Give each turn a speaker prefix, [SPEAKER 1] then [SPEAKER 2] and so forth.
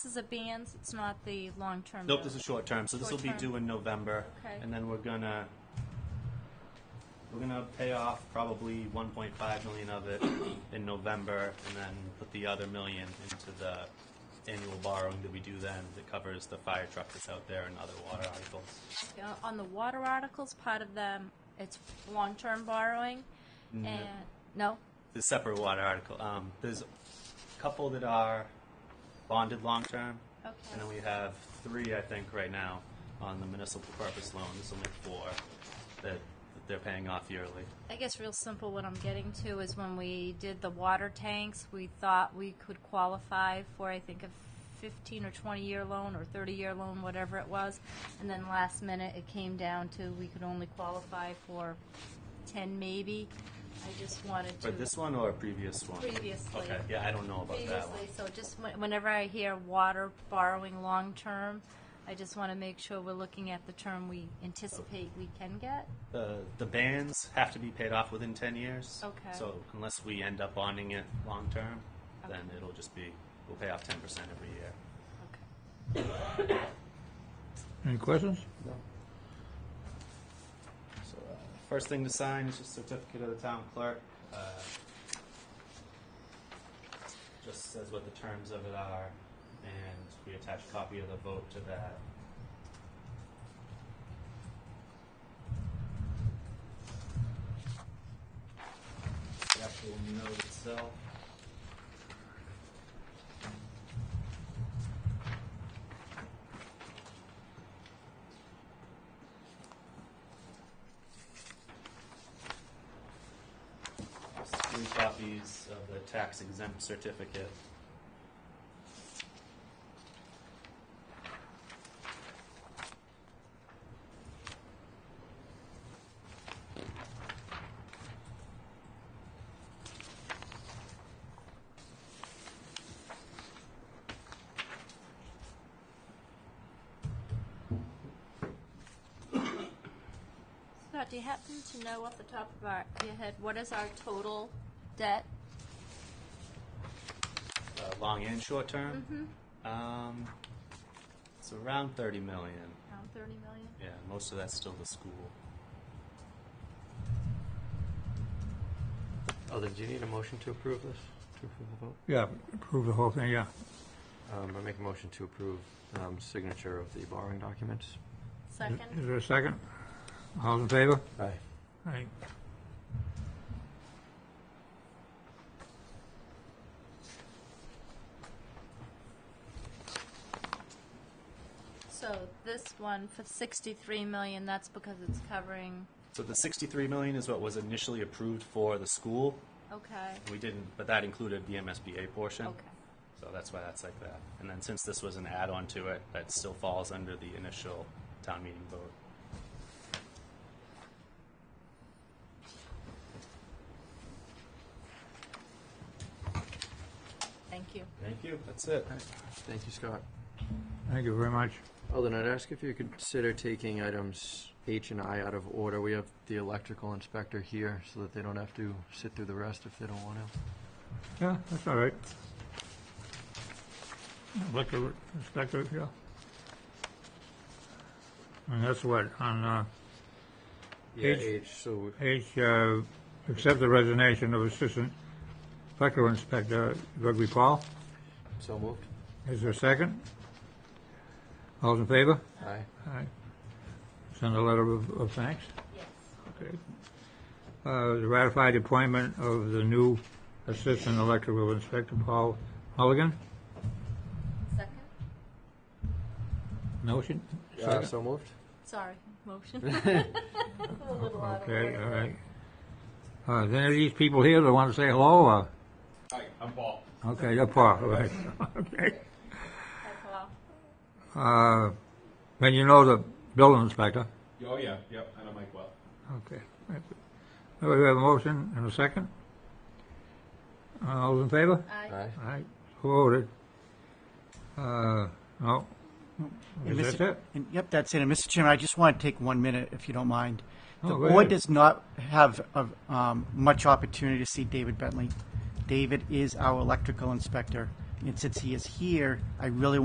[SPEAKER 1] This is a band, it's not the long-term.
[SPEAKER 2] Nope, this is short term, so this will be
[SPEAKER 1] Short term.
[SPEAKER 2] due in November.
[SPEAKER 1] Okay.
[SPEAKER 2] And then we're gonna, we're gonna pay off probably one point five million of it in November, and then put the other million into the annual borrowing that we do then, that covers the fire truck that's out there and other water articles.
[SPEAKER 1] Uh, On the water articles, part of them, it's long-term borrowing,
[SPEAKER 2] Mm-hmm.
[SPEAKER 1] and, no?
[SPEAKER 2] the separate water article. Um, there's a couple that are bonded long term,
[SPEAKER 1] Okay.
[SPEAKER 2] and then we have three, I think, right now on the municipal purpose loan. This will make four that, that they're paying off yearly.
[SPEAKER 1] I guess real simple, what I'm getting to is when we did the water tanks, we thought we could qualify for, I think, a fifteen or twenty-year loan or thirty-year loan, whatever it was. And then last minute, it came down to we could only qualify for ten maybe. I just wanted to.
[SPEAKER 2] For this one or a previous one?
[SPEAKER 1] Previously.
[SPEAKER 2] Okay, yeah, I don't know about that one.
[SPEAKER 1] previously, so just whe- whenever I hear water borrowing long-term, I just want to make sure we're looking at the term we anticipate we can get.
[SPEAKER 2] The, the bands have to be paid off within ten years.
[SPEAKER 1] Okay.
[SPEAKER 2] So unless we end up bonding it long term, then it'll just be, we'll pay off ten percent every year.
[SPEAKER 1] Okay.
[SPEAKER 3] Any questions?
[SPEAKER 2] So, uh, first thing to sign is just certificate of the town clerk. Uh, Just says what the terms of it are, and we attach a copy of the vote to that. The actual note itself. three copies of the tax exempt certificate.
[SPEAKER 1] Scott, do you happen to know off the top of our, your head, what is our total debt?
[SPEAKER 2] uh, long and short term. Um, it's around 30 million.
[SPEAKER 1] Around thirty million?
[SPEAKER 2] Yeah, most of that's still the school.
[SPEAKER 4] Oh, then do you need a motion to approve this? To approve the vote?
[SPEAKER 3] Yeah, approve the whole thing, yeah.
[SPEAKER 4] Um, I make a motion to approve, um, signature of the borrowing documents.
[SPEAKER 3] Is
[SPEAKER 1] Second?
[SPEAKER 3] there a second? All in favor?
[SPEAKER 4] Aye.
[SPEAKER 3] Aye.
[SPEAKER 1] So this one for sixty-three million, that's because it's covering,
[SPEAKER 2] So the 63 million is what was initially approved for the school.
[SPEAKER 1] okay,
[SPEAKER 2] We didn't, but that included the MSBA portion.
[SPEAKER 1] okay.
[SPEAKER 2] So that's why that's like that. And then since this was an add-on to it, that still falls under the initial town meeting vote.
[SPEAKER 1] Thank you.
[SPEAKER 2] Thank you. That's it.
[SPEAKER 4] Thank you, Scott.
[SPEAKER 3] Thank you very much.
[SPEAKER 4] Oh, then I'd ask if you could consider taking items H and I out of order. We have the electrical inspector here so that they don't have to sit through the rest if they don't want to.
[SPEAKER 3] Yeah, that's all right. Liquor inspector, yeah. And that's what, on, uh,
[SPEAKER 4] Yeah,
[SPEAKER 3] H.
[SPEAKER 4] H, so,
[SPEAKER 3] H, uh, accept the resignation of Assistant Liquor Inspector Gregory Paul.
[SPEAKER 4] so moved.
[SPEAKER 3] Is there a second? All in favor?
[SPEAKER 4] Aye.
[SPEAKER 3] Aye. Send a letter of, of thanks?
[SPEAKER 1] Yes.
[SPEAKER 3] Okay. Uh, the ratified appointment of the new Assistant Electrical Inspector Paul Mulligan.
[SPEAKER 1] Second?
[SPEAKER 3] Motion?
[SPEAKER 4] Uh,
[SPEAKER 3] Second?
[SPEAKER 4] so moved.
[SPEAKER 1] Sorry, motion. I'm a little out of
[SPEAKER 3] Okay, all
[SPEAKER 1] order.
[SPEAKER 3] right. Uh, is any of these people here that want to say hello, or,
[SPEAKER 5] Hi, I'm Paul.
[SPEAKER 3] okay, you're Paul, right, okay.
[SPEAKER 1] Hi, Paul.
[SPEAKER 3] Uh, then you know the building inspector,
[SPEAKER 5] Oh, yeah, yep, I know Mike well.
[SPEAKER 3] okay. Do we have a motion and a second? Uh, All in favor?
[SPEAKER 1] Aye.
[SPEAKER 4] Aye.
[SPEAKER 3] All right, voted. Uh, no,
[SPEAKER 6] And
[SPEAKER 3] is
[SPEAKER 6] Mr.
[SPEAKER 3] that it?
[SPEAKER 6] and- Yep, that's it. And Mr. Chairman, I just want to take one minute, if you don't mind. The
[SPEAKER 3] Oh, go
[SPEAKER 6] board
[SPEAKER 3] ahead.
[SPEAKER 6] does not have uh, um, much opportunity to see David Bentley. David is our electrical inspector, and since he is here, I really